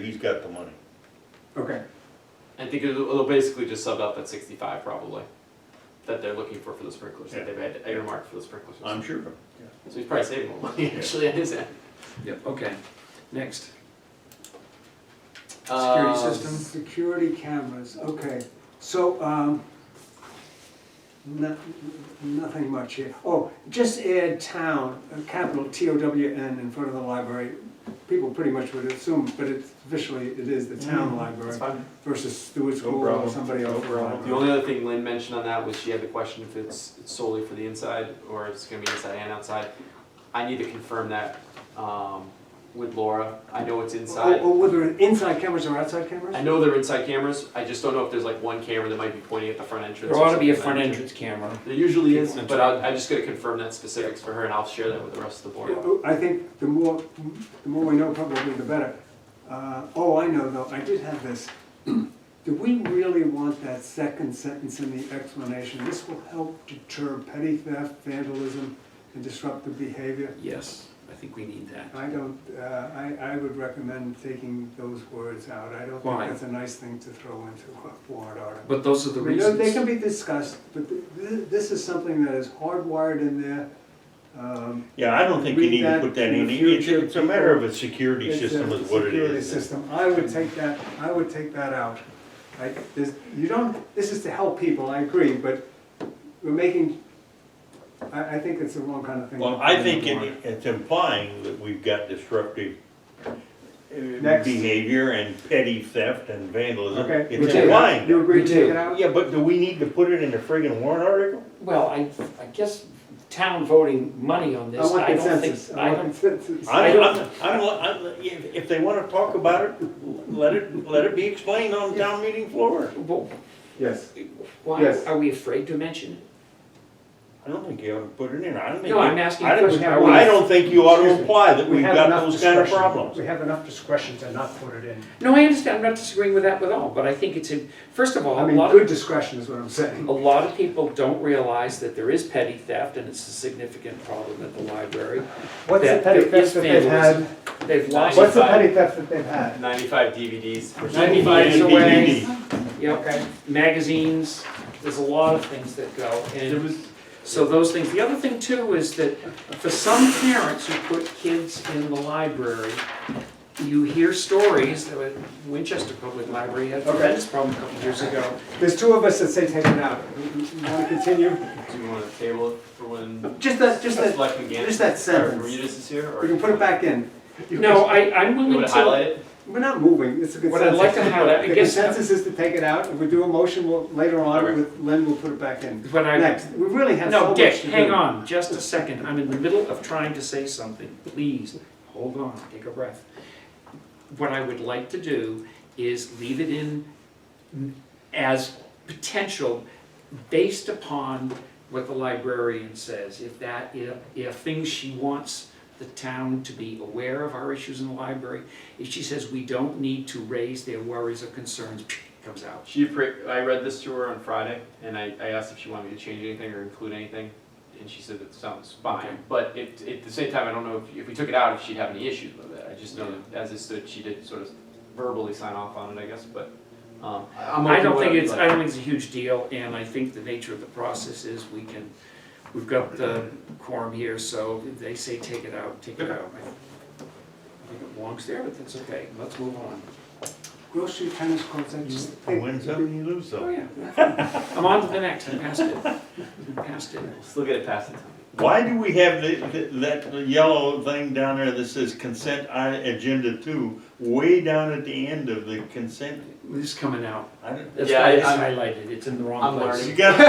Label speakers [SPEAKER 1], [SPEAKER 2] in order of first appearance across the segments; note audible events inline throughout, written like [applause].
[SPEAKER 1] He's got the money.
[SPEAKER 2] Okay,
[SPEAKER 3] I think it'll, it'll basically just sub out that sixty-five probably, that they're looking for for the sprinklers, that
[SPEAKER 1] Yeah.
[SPEAKER 3] they've had earmarked for the sprinklers.
[SPEAKER 1] I'm sure.
[SPEAKER 3] So he's probably saving more money actually [laughs] on his end.
[SPEAKER 4] Yep, okay, next.
[SPEAKER 3] Uh,
[SPEAKER 4] Security
[SPEAKER 3] Um,
[SPEAKER 4] system,
[SPEAKER 2] Uh, security cameras, okay, so, um, no, nothing much here. Oh, just add town, a capital T O W N in front of the library. People pretty much would assume, but it's officially, it is the
[SPEAKER 4] Mm. Mm-hmm.
[SPEAKER 2] town
[SPEAKER 3] That's
[SPEAKER 2] library
[SPEAKER 3] fine.
[SPEAKER 2] versus Stewart
[SPEAKER 1] No
[SPEAKER 2] School or
[SPEAKER 1] problem.
[SPEAKER 2] somebody
[SPEAKER 1] No
[SPEAKER 2] else.
[SPEAKER 1] problem.
[SPEAKER 3] The only other thing Lynn mentioned on that was she had the question if it's it's solely for the inside or if it's gonna be inside and outside. I need to confirm that, um, with Laura. I know it's
[SPEAKER 2] Or,
[SPEAKER 3] inside.
[SPEAKER 2] or whether inside cameras or outside
[SPEAKER 3] I
[SPEAKER 2] cameras?
[SPEAKER 3] know they're inside cameras. I just don't know if there's like one camera that might be pointing at the front entrance.
[SPEAKER 4] there
[SPEAKER 3] or
[SPEAKER 4] ought to be a
[SPEAKER 3] something like
[SPEAKER 4] front
[SPEAKER 3] that.
[SPEAKER 4] entrance camera.
[SPEAKER 3] There usually is,
[SPEAKER 4] Entrance.
[SPEAKER 3] but I, I just gotta confirm that specifics for her and I'll share that with the rest of the board.
[SPEAKER 2] I think the more, the more we know probably the better. Uh, oh, I know though, I did have this. [clears throat] Do we really want that second sentence in the explanation? This will help deter petty theft, vandalism, and disruptive behavior.
[SPEAKER 4] Yes, I think we need that.
[SPEAKER 2] I don't, uh, I, I would recommend taking those words out. I don't think
[SPEAKER 4] Why?
[SPEAKER 2] that's a nice thing to throw into a warrant article.
[SPEAKER 4] But those are the
[SPEAKER 2] I mean, no, They
[SPEAKER 4] reasons.
[SPEAKER 2] can be discussed, but th- th- this is something that is hardwired in there. Um,
[SPEAKER 1] Yeah, I don't think you
[SPEAKER 2] Read
[SPEAKER 1] need to
[SPEAKER 2] that
[SPEAKER 1] put that
[SPEAKER 2] in
[SPEAKER 1] in.
[SPEAKER 2] the
[SPEAKER 1] It's,
[SPEAKER 2] future,
[SPEAKER 1] it's a matter of a
[SPEAKER 2] it's
[SPEAKER 1] security
[SPEAKER 2] a
[SPEAKER 1] system is what it
[SPEAKER 2] Security
[SPEAKER 1] is.
[SPEAKER 2] system, I would take that, I would take that out. I, this, you don't, this is to help people, I agree, but we're making, I, I think it's the wrong kind of thing.
[SPEAKER 1] Well, I think it- it's implying that we've got disruptive uh,
[SPEAKER 2] Next.
[SPEAKER 1] behavior and petty theft and vandalism.
[SPEAKER 2] Okay.
[SPEAKER 4] We
[SPEAKER 1] It's
[SPEAKER 4] take it out.
[SPEAKER 1] implying.
[SPEAKER 2] You
[SPEAKER 1] that.
[SPEAKER 2] agree
[SPEAKER 4] We
[SPEAKER 2] to take
[SPEAKER 4] do.
[SPEAKER 2] it out?
[SPEAKER 1] Yeah, but do we need to put it in the friggin' warrant article?
[SPEAKER 4] Well, I, I guess town voting money on
[SPEAKER 2] I
[SPEAKER 4] this,
[SPEAKER 2] want
[SPEAKER 4] I don't think,
[SPEAKER 2] consensus,
[SPEAKER 4] I
[SPEAKER 2] I want
[SPEAKER 4] don't,
[SPEAKER 2] consensus.
[SPEAKER 1] I'm,
[SPEAKER 4] don't-
[SPEAKER 1] I'm, I'm, I'm- if, if they wanna talk about it, let it, let it be explained on town meeting floor.
[SPEAKER 4] well,
[SPEAKER 2] Yes,
[SPEAKER 4] why,
[SPEAKER 2] Yes.
[SPEAKER 4] are we afraid to mention it?
[SPEAKER 1] I don't think you ought to put it in. I don't think.
[SPEAKER 4] No,
[SPEAKER 1] you-
[SPEAKER 4] I'm asking
[SPEAKER 1] I
[SPEAKER 4] a
[SPEAKER 1] don't-
[SPEAKER 4] question.
[SPEAKER 2] have
[SPEAKER 4] Are
[SPEAKER 2] one.
[SPEAKER 4] we-
[SPEAKER 1] I don't think you ought to
[SPEAKER 2] Excuse me.
[SPEAKER 1] imply that we've
[SPEAKER 2] have
[SPEAKER 1] got
[SPEAKER 2] enough
[SPEAKER 1] those kind of
[SPEAKER 2] discretion.
[SPEAKER 1] problems.
[SPEAKER 2] We have enough discretion to not put it in.
[SPEAKER 4] No, I understand, I'm not disagreeing with that at all, but I think it's, in- first of all,
[SPEAKER 2] I
[SPEAKER 4] a
[SPEAKER 2] mean,
[SPEAKER 4] lot
[SPEAKER 2] good
[SPEAKER 4] of,
[SPEAKER 2] discretion is what I'm saying.
[SPEAKER 4] a lot of people don't realize that there is petty theft and it's a significant problem at the library.
[SPEAKER 2] What's the
[SPEAKER 4] that
[SPEAKER 2] petty
[SPEAKER 4] there is
[SPEAKER 2] theft that they've
[SPEAKER 4] vandalism.
[SPEAKER 2] had?
[SPEAKER 4] They've lost.
[SPEAKER 2] What's the petty theft that they've had?
[SPEAKER 3] Ninety-five DVDs. for some-
[SPEAKER 4] 95 is
[SPEAKER 1] And
[SPEAKER 4] away.
[SPEAKER 1] DVD.
[SPEAKER 4] Yep.
[SPEAKER 2] Okay.
[SPEAKER 4] magazines, there's a lot of things that go,
[SPEAKER 3] There
[SPEAKER 4] and
[SPEAKER 3] was,
[SPEAKER 4] so those things. The other thing too is that for some parents who put kids in the library, you hear stories, that Winchester Public Library had a
[SPEAKER 2] Okay.
[SPEAKER 4] tremendous problem a couple years ago.
[SPEAKER 2] There's two of us that say take it out. Want to continue?
[SPEAKER 3] do you wanna table it for when
[SPEAKER 2] Just that, just that,
[SPEAKER 3] Selectman Gannon?
[SPEAKER 2] just that
[SPEAKER 3] Or
[SPEAKER 2] sentence.
[SPEAKER 3] Rita's is here, or?
[SPEAKER 2] We can put it back in.
[SPEAKER 4] No, I, I'm
[SPEAKER 3] You
[SPEAKER 4] willing
[SPEAKER 3] wanna highlight
[SPEAKER 4] to,
[SPEAKER 3] it?
[SPEAKER 2] We're not moving, it's a good
[SPEAKER 4] what I'd like to highlight, I
[SPEAKER 2] The
[SPEAKER 4] guess,
[SPEAKER 2] consensus is to take it out, if we do a motion, we'll, later on,
[SPEAKER 3] Okay.
[SPEAKER 2] with Lynn, we'll put it back in.
[SPEAKER 4] what I,
[SPEAKER 2] Next, we really have so
[SPEAKER 4] no,
[SPEAKER 2] much to do.
[SPEAKER 4] Dick, hang on, just a second, I'm in the middle of trying to say something, please, hold on, take a breath. What I would like to do is leave it in as potential based upon what the librarian says. If that, if, if things she wants the town to be aware of our issues in the library, if she says we don't need to raise their worries or concerns, [sniffs] comes out.
[SPEAKER 3] She, appra- I read this to her on Friday, and I, I asked if she wanted me to change anything or include anything, and she said that sounds
[SPEAKER 4] Okay.
[SPEAKER 3] fine. But at, at the same time, I don't know if, if we took it out, if she'd have any issues with it. I just know that as it stood, she did sort of verbally sign off on it, I guess, but, um, I'm open
[SPEAKER 4] I
[SPEAKER 3] to
[SPEAKER 4] don't think
[SPEAKER 3] whatever you'd
[SPEAKER 4] it's, I
[SPEAKER 3] like.
[SPEAKER 4] don't think it's a huge deal, and I think the nature of the process is we can, we've got the quorum here, so if they say take it out, take it out. I think it belongs there, but that's okay, let's move on.
[SPEAKER 2] Grocery tennis courts, I just.
[SPEAKER 1] He wins some and you lose
[SPEAKER 4] Oh,
[SPEAKER 1] some.
[SPEAKER 4] yeah. I'm on to the next, I passed it, I passed it.
[SPEAKER 3] We'll Still get it passed in time.
[SPEAKER 1] Why do we have the, the- that yellow thing down there that says consent i- agenda two, way down at the end of the consent?
[SPEAKER 4] This is coming out.
[SPEAKER 1] I don't-
[SPEAKER 4] That's
[SPEAKER 3] Yeah,
[SPEAKER 4] why
[SPEAKER 3] I-
[SPEAKER 4] it's
[SPEAKER 3] I'm-
[SPEAKER 4] highlighted, it's in the
[SPEAKER 3] I'm
[SPEAKER 4] wrong place. [laughs]
[SPEAKER 1] You got,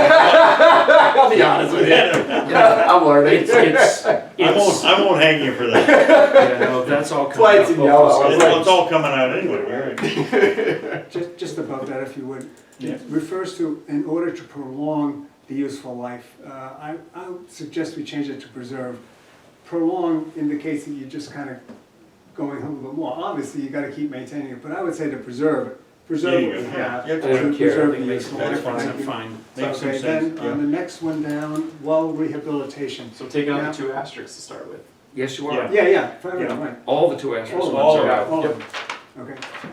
[SPEAKER 3] I'll be honest
[SPEAKER 1] you got-
[SPEAKER 3] I'm learning.
[SPEAKER 4] It's, it's,
[SPEAKER 1] I won't,
[SPEAKER 4] it's,
[SPEAKER 1] I won't hang you for that.
[SPEAKER 4] yeah, no, that's all coming out.
[SPEAKER 3] why it's in yellow. I was
[SPEAKER 1] It's
[SPEAKER 3] like-
[SPEAKER 1] it's all coming out anyway, right?
[SPEAKER 2] Just, just above that, if you would.
[SPEAKER 1] Yeah.
[SPEAKER 2] It refers to, in order to prolong the useful life, uh, I, I would suggest we change it to preserve. Prolong indicates that you're just kind of going a little bit more. Obviously, you gotta keep maintaining it, but I would say to preserve it. Preserve what
[SPEAKER 1] Yeah,
[SPEAKER 2] we
[SPEAKER 1] yeah.
[SPEAKER 2] have.
[SPEAKER 1] Yeah,
[SPEAKER 4] I
[SPEAKER 2] to
[SPEAKER 4] don't care, I
[SPEAKER 2] preserve
[SPEAKER 4] think it
[SPEAKER 2] the
[SPEAKER 4] makes no
[SPEAKER 2] useful life.
[SPEAKER 4] difference, I'm
[SPEAKER 2] Thank you.
[SPEAKER 4] fine.
[SPEAKER 1] Makes some
[SPEAKER 2] Okay,
[SPEAKER 1] sense,
[SPEAKER 2] then,
[SPEAKER 1] yeah.
[SPEAKER 2] on the next one down, well rehabilitation.
[SPEAKER 3] So taking out
[SPEAKER 2] Yeah.
[SPEAKER 3] the two asterisks to start with.
[SPEAKER 4] Yes, you are.
[SPEAKER 2] Yeah, yeah, for everyone,
[SPEAKER 1] Yeah.
[SPEAKER 2] right.
[SPEAKER 4] All the two asterisk
[SPEAKER 2] All
[SPEAKER 4] ones
[SPEAKER 2] of
[SPEAKER 1] them.
[SPEAKER 4] are out.
[SPEAKER 2] All of them. okay?